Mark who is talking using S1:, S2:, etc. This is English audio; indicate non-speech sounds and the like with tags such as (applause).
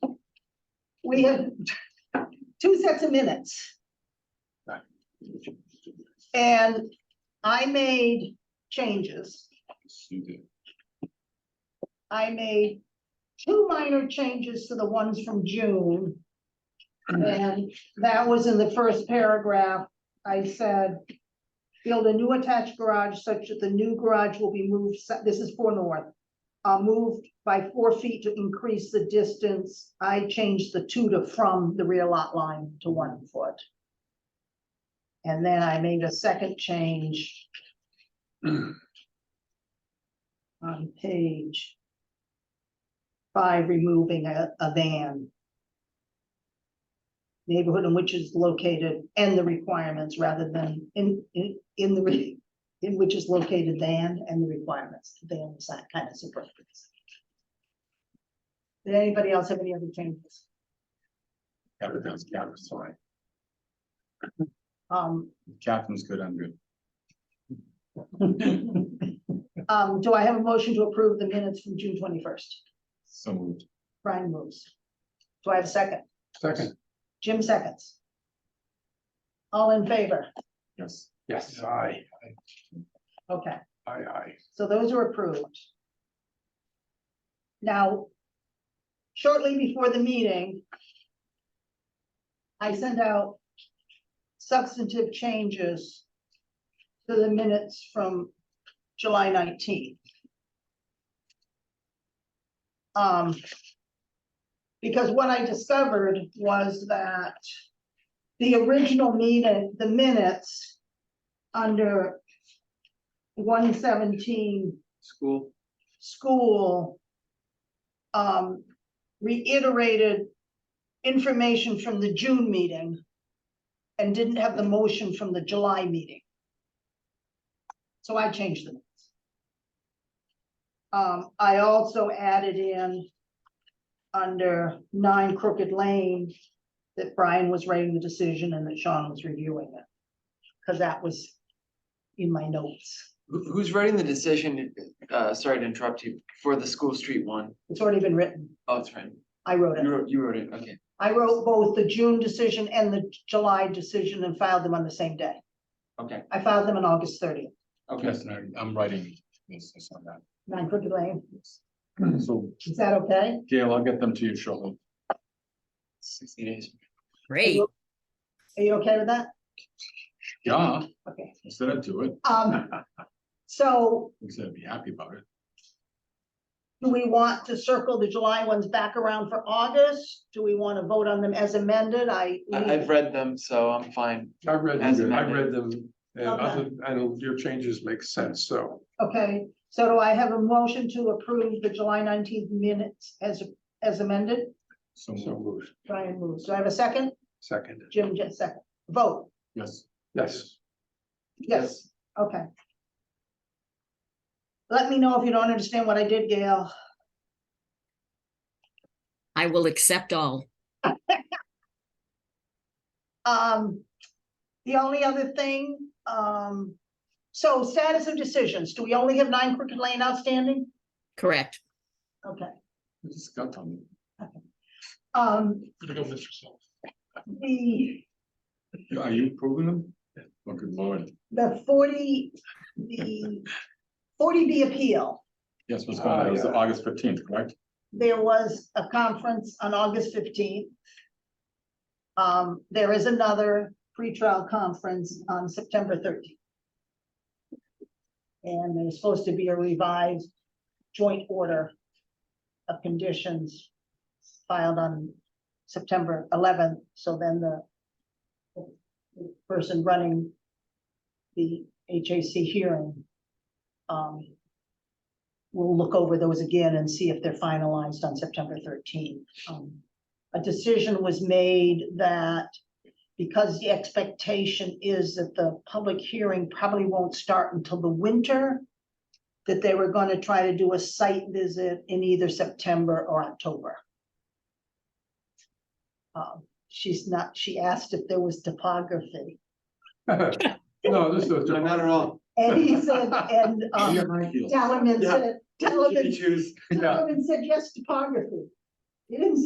S1: we have two sets of minutes. And I made changes.
S2: You did.
S1: I made two minor changes to the ones from June. And that was in the first paragraph. I said, build a new attached garage such that the new garage will be moved, se- this is for north, uh, moved by four feet to increase the distance. I changed the two to from the rear lot line to one foot. And then I made a second change on page by removing a, a van. Neighborhood in which is located and the requirements rather than in, in, in the, re- in which is located than and the requirements. Than is that kind of superfluous. Did anybody else have any other changes?
S2: Everything's Captain's fine.
S1: Um,
S2: Captain's good, I'm good.
S1: um, do I have a motion to approve the minutes from June twenty-first?
S2: So moved.
S1: Brian moves. Do I have a second?
S2: Second.
S1: Jim seconds. All in favor?
S2: Yes.
S3: Yes, aye,
S1: Okay.
S3: aye, aye.
S1: So those are approved. Now, shortly before the meeting, I sent out substantive changes to the minutes from July nineteenth. Um, because what I discovered was that the original meeting, the minutes under one seventeen
S3: School.
S1: school um, reiterated information from the June meeting and didn't have the motion from the July meeting. So I changed them. Um, I also added in under nine Crooked Lane that Brian was writing the decision and that Sean was reviewing it. Cause that was in my notes.
S4: Who, who's writing the decision, uh, sorry to interrupt you, for the school street one?
S1: It's already been written.
S4: Oh, it's right,
S1: I wrote it.
S4: you wrote, you wrote it, okay.
S1: I wrote both the June decision and the July decision and filed them on the same day.
S4: Okay.
S1: I filed them on August thirtieth,
S4: Okay,
S2: Yes, and I- I'm writing this, this on that.
S1: nine Crooked Lane.
S2: So
S1: Is that okay?
S2: Gail, I'll get them to you shortly.
S4: sixty days.
S5: Great.
S1: Are you okay with that?
S2: Yeah,
S1: Okay.
S2: I said I'd do it.
S4: (laughs)
S1: Um, so
S2: He said I'd be happy about it.
S1: do we want to circle the July ones back around for August? Do we want to vote on them as amended? I.
S4: I, I've read them, so I'm fine.
S3: I've read,
S4: As
S3: them, I've read
S4: amended.
S3: them, and
S1: Okay.
S3: other, and your changes make sense, so.
S1: Okay, so do I have a motion to approve the July nineteenth minutes as, as amended?
S2: So
S3: So
S2: moved.
S3: moved,
S1: Brian moves. Do I have a second?
S3: second,
S1: Jim, just second. Vote.
S2: Yes.
S3: yes,
S1: Yes. Okay. Let me know if you don't understand what I did, Gail.
S5: I will accept all.
S1: Um, the only other thing, um, so status of decisions, do we only have nine Crooked Lane outstanding?
S5: Correct.
S1: Okay,
S2: This got on me.
S1: um,
S3: Go with yourself.
S1: the,
S2: Are you approving them? Oh, good lord.
S1: the forty, the forty B appeal.
S2: Yes, what's going on? It was
S3: Ah, yeah.
S2: August fifteenth, correct?
S1: There was a conference on August fifteenth. Um, there is another pretrial conference on September thirteenth. And there's supposed to be a revised joint order of conditions filed on September eleventh, so then the the person running the HAC hearing um, we'll look over those again and see if they're finalized on September thirteenth. Um, A decision was made that because the expectation is that the public hearing probably won't start until the winter, that they were gonna try to do a site visit in either September or October. Um, She's not, she asked if there was topography,
S3: (laughs) No, this is.
S4: No, Not at all.
S1: and he said, and, um, Talaman said, Talaman
S4: choose.
S3: Yeah.
S1: Donovan said yes, topography. He didn't